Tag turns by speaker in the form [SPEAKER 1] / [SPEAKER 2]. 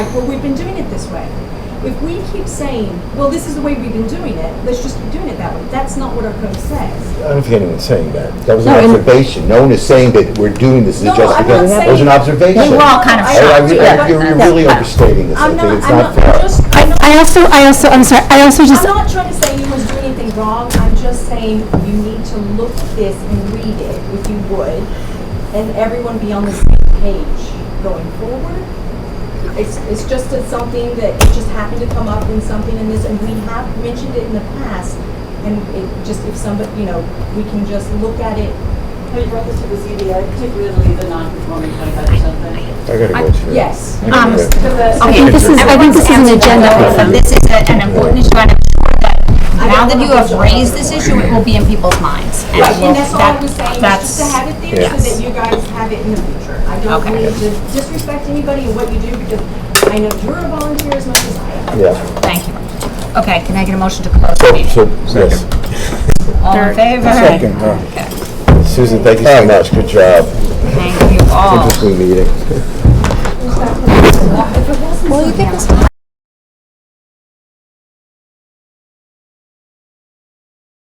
[SPEAKER 1] well, we've been doing it this way. If we keep saying, well, this is the way we've been doing it, let's just keep doing it that way, that's not what our code says.
[SPEAKER 2] I don't think anyone's saying that. That was an
[SPEAKER 3] No, and-
[SPEAKER 2] observation. No one is saying that we're doing this
[SPEAKER 1] No,
[SPEAKER 2] as
[SPEAKER 1] no,
[SPEAKER 2] just
[SPEAKER 1] I'm
[SPEAKER 2] because.
[SPEAKER 1] not
[SPEAKER 2] That was an
[SPEAKER 1] saying-
[SPEAKER 2] observation.
[SPEAKER 1] We were all kind of
[SPEAKER 2] I- I
[SPEAKER 1] shocked.
[SPEAKER 2] re-
[SPEAKER 1] Yeah.
[SPEAKER 2] I- You're you're really
[SPEAKER 3] Yeah.
[SPEAKER 2] overstating this. I
[SPEAKER 1] I'm
[SPEAKER 2] think
[SPEAKER 1] not,
[SPEAKER 2] it's
[SPEAKER 1] I'm
[SPEAKER 2] not
[SPEAKER 1] not,
[SPEAKER 2] fair.
[SPEAKER 1] I'm just, I'm
[SPEAKER 3] I,
[SPEAKER 1] not,
[SPEAKER 3] I also, I also, I'm sorry, I also just,
[SPEAKER 1] I'm not trying to say anyone's doing anything wrong, I'm just saying you need to look at this and read it, if you would, and everyone be on the same page going forward. It's, it's just that something that it just happened to come up in something in this, and we have mentioned it in the past, and it just, if somebody, you know, we can just look at it.
[SPEAKER 4] Have you brought this to the ZBA, particularly the non-conforming twenty-five percent thing?
[SPEAKER 2] I gotta go through.
[SPEAKER 1] Yes.
[SPEAKER 2] I gotta
[SPEAKER 5] Um,
[SPEAKER 2] go.
[SPEAKER 3] I think this is, I think this is an agenda
[SPEAKER 5] Everyone's
[SPEAKER 3] item.
[SPEAKER 5] answered. This is a- an important issue, and I'm sure that now that you have raised this issue, it will be in people's minds. And
[SPEAKER 1] Right, and that's all I
[SPEAKER 5] that-
[SPEAKER 1] was saying, is
[SPEAKER 5] that's-
[SPEAKER 1] just to have it there so
[SPEAKER 5] Yes.
[SPEAKER 1] that you guys have it in the future. I don't
[SPEAKER 5] Okay.
[SPEAKER 1] mean to disrespect anybody and what you do, because I know you're a volunteer as much as I am.
[SPEAKER 2] Yeah.
[SPEAKER 5] Thank you. Okay, can I get a motion to close the
[SPEAKER 2] So,
[SPEAKER 5] meeting?
[SPEAKER 2] so, yes.
[SPEAKER 5] All in favor?
[SPEAKER 2] Susan, thank you so much. Good job.
[SPEAKER 5] Thank you all.
[SPEAKER 2] Interesting meeting.
[SPEAKER 5] Well, you think this